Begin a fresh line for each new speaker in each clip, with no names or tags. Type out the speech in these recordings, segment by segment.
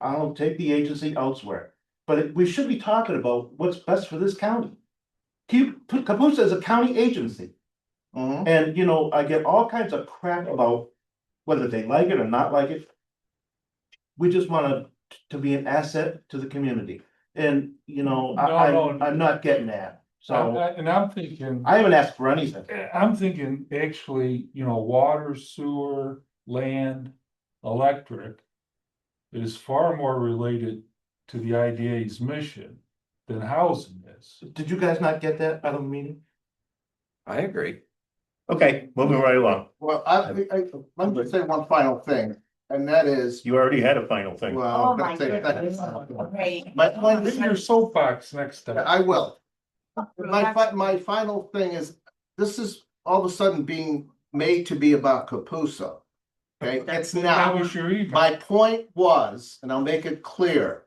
I'll take the agency elsewhere. But we should be talking about what's best for this county. Keep, Capusa is a county agency.
Mhm.
And, you know, I get all kinds of crap about whether they like it or not like it. We just wanna t- to be an asset to the community, and, you know, I,
No, no.
I, I'm not getting that, so
I- And I'm thinking,
I haven't asked for anything.
I'm thinking actually, you know, water, sewer, land, electric. Is far more related to the IDA's mission than housing is.
Did you guys not get that out of the meeting?
I agree.
Okay, moving right along.
Well, I, I, let me say one final thing, and that is,
You already had a final thing.
well.
Oh, my
let's say
goodness.
that-
Great.
My point
Get
is,
in your soapbox next time.
I will. My, fi- my final thing is, this is all of a sudden being made to be about Capusa. Okay, it's
That
not.
was your email.
My point was, and I'll make it clear.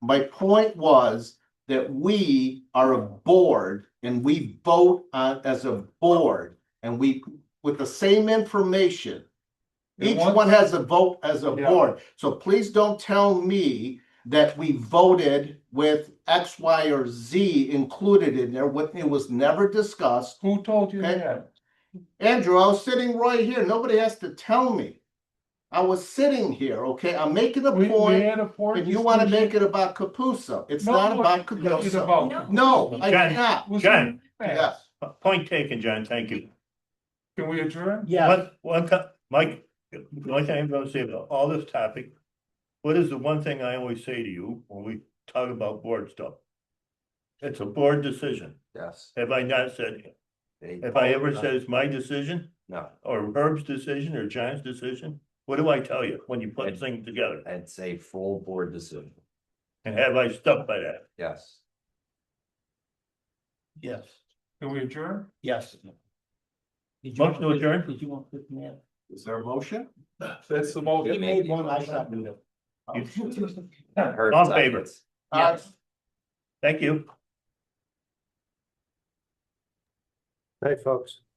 My point was that we are a board and we vote on as a board and we, with the same information.
And
Each
once-
one has a vote as a
Yeah.
board, so please don't tell me that we voted with X, Y, or Z included in there, what, it was never discussed.
Who told you
Okay.
that?
Andrew, I was sitting right here. Nobody has to tell me. I was sitting here, okay? I'm making a
We, we
point.
had a board.
If you wanna make
discussion.
it about Capusa, it's
No,
not
no,
about
it's
Capusa.
about-
No.
No, I
Jen.
cannot.
Was
Jen.
your email.
Yes.
Point taken, John, thank you.
Can we adjourn?
One, one, co- Mike, the only thing I'm gonna say about all this topic, what is the one thing I always say to you when we talk about board stuff? It's a board decision.
Yes.
Have I not said,
They-
have I ever said it's my decision
No,
or Herb's decision or John's decision? What do I tell you when you put things together?
I'd say full board decision.
And have I stuck by that?
Yes.
Yes,
Can we adjourn?
yes. Did you
Motion to
want-
adjourn?
Did you want to, man?
Is there a motion?
That's the most.
He made one, I seconded it.
You-
Herb
All in favor?
seconds.
Uh,
Yes.
Thank you.
Hey, folks.